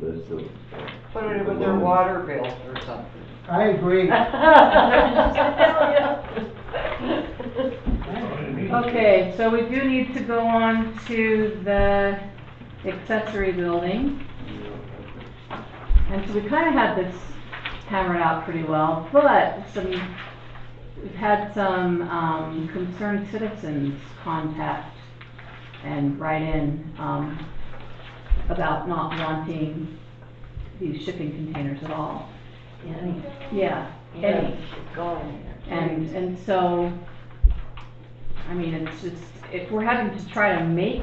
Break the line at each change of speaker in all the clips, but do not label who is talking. this, so.
Put it with their water bills or something.
I agree.
Okay, so we do need to go on to the accessory building. And so we kind of had this hammered out pretty well, but some, we've had some, um, concerned citizens contact and write in, um, about not wanting these shipping containers at all.
Any.
Yeah, any.
Any. Gone.
And, and so, I mean, it's just, if we're having to try to make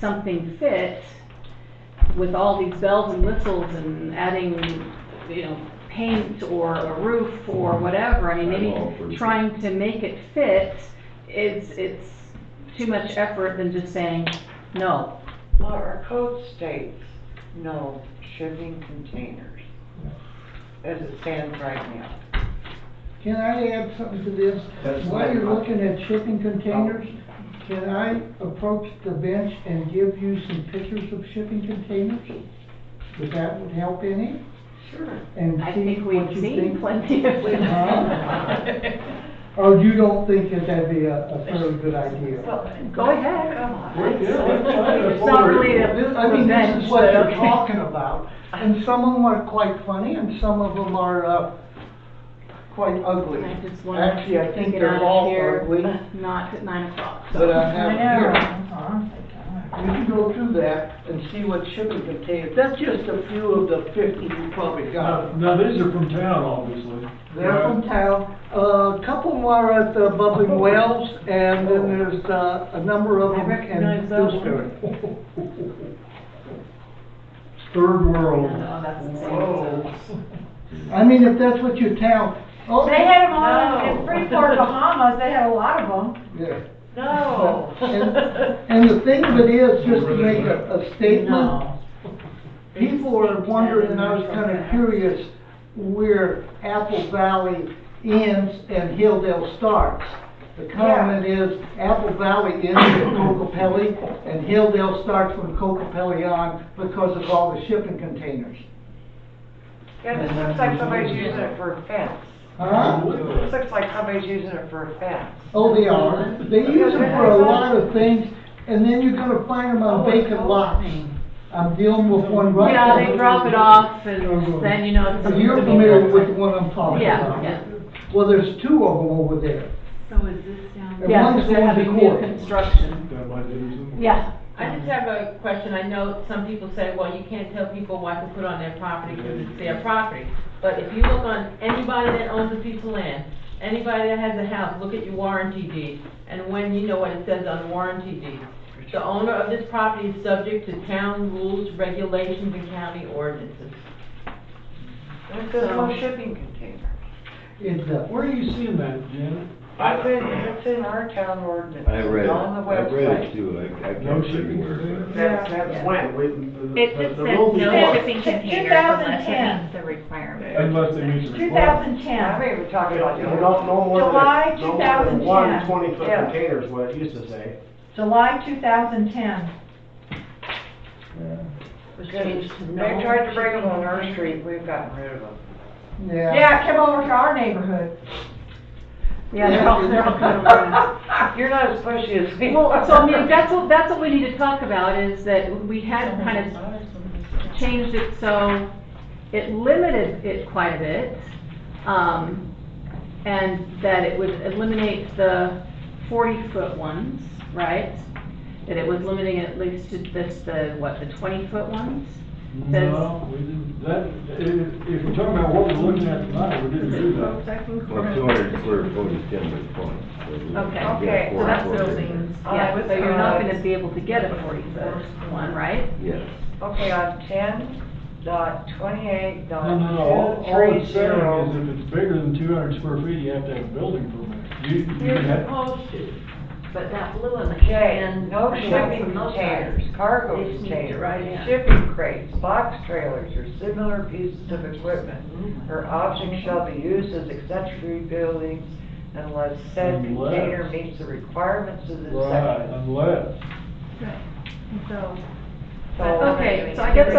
something fit with all these bells and whistles and adding, you know, paint or a roof or whatever, I mean,
I'm all for
maybe
it.
trying to make it fit is, it's too much effort than just saying, no.
Well, our code states no shipping containers, as it stands right now.
Can I add something to this?
That's
While
fine. Oh.
you're looking at shipping containers, can I approach the bench and give you some pictures of shipping containers? If that would help any,
Sure.
and
I
see
think
what
we've
you
seen
think.
plenty of
Huh?
them.
Or you don't think that that'd be a, a fairly good idea?
Go ahead. Come
We're good, we're trying
It's not really a
This- I mean, this
revenge,
is what
but
they're
okay.
talking about, and some of them are quite funny, and some of them are, uh, quite ugly.
I just wanna
Actually, I think
get
they're
out of
all
here.
ugly,
Not at nine o'clock, so.
but uh, I have
I know.
here. You can go through that and see what shipping containers, that's just a few of the fifty you probably
Now,
got.
now these are from town, obviously.
They're from town, uh, a couple more at the Bubbling Wells, and then there's, uh, a number of
I
them in
recognize that one.
Dewsbury.
Third world.
No, that's insane.
Whoa.
I mean, if that's what your town, oh.
They had them all in-
No.
in Freeport, Bahamas, they had a lot of them.
Yeah.
No.
And and the thing of it is, just to make a, a statement, people are wondering, and I was kinda curious, where Apple Valley ends and Hilldale starts. The comment is, Apple Valley ends at Cocopelli, and Hilldale starts from Cocopelli on because of all the shipping containers.
Yeah, this looks like somebody's using it for a fence.
Huh?
This looks like somebody's using it for a fence.
Oh, they are. They use them for a lot of things, and then you're gonna find them
Oh,
on vacant lots. I'm dealing with one right
Yeah,
now.
they drop it off and then you know. it's
So
something
You're
to be
familiar
done.
with the one I'm talking
Yeah,
about?
yeah.
Well, there's two of them over there.
So is this down?
And
Yeah,
one's
because they're
going to
having new
court.
construction.
That might do something.
Yeah.
I just have a question. I know some people say, well, you can't tell people what to put on their property because it's their property. But if you look on anybody that owns a piece of land, anybody that has a house, look at your warranty deed. And when you know what it says on the warranty deed. The owner of this property is subject to town rules, regulations, and county ordinances.
There's no shipping container.
It's, uh,
Where are you seeing that, Janet?
It's in, it's in our town ordinance.
I read it,
It's on the
I read it
website.
too, I, I
No
can't
shipping
remember.
container?
That's,
Yeah.
that's when, when the,
It
the-
just
the
says
rule
no
before.
shipping containers unless it meets
the requirement.
Unless they meet the
Two
requirement.
thousand
I
ten.
mean, we're talking about.
You don't, no more than,
July
no more than one
2010.
twenty foot
Yeah.
container is what it used to say.
July two thousand ten.
Yeah.
Was
They
changed to no
tried to bring them on our
shipping
street, we've gotten rid of them.
yeah.
Yeah, it came over to our neighborhood.
Yeah, they're all, they're all kind of around.
You're not as pushy as me.
Well, so I mean, that's what, that's what we need to talk about is that we had kind of changed it so it limited it quite a bit. Um, and that it would eliminate the forty-foot ones, right? That it was limiting at least to this, the, what, the twenty-foot ones?
No, we didn't, that, if, if we're talking about what we're looking at tonight, we didn't do that.
Well, two hundred square foot is ten by twenty. so we-
Okay.
we get
Okay,
four
So that's
foot in there.
buildings,
All
yeah,
right,
so you're not
uh,
gonna be able to get a forty-foot one, right?
Yes.
uh, Okay, on ten dot twenty-eight
No,
dot
no, no, all,
two
all
three
it's saying is
zero.
if it's bigger than two hundred square feet, you have to have a building permit. You, you
You're
have,
supposed to, but that blue in the
J,
can.
no
I know
shipping
from those
containers,
guys.
cargo
They sneaked it right
containers,
in.
shipping crates, box trailers, or similar pieces of equipment
Mm-hmm.
or objects shall be used as accessory buildings unless said container
Unless.
meets the requirements of this
right,
section.
unless.
So.
So-
Okay, so I guess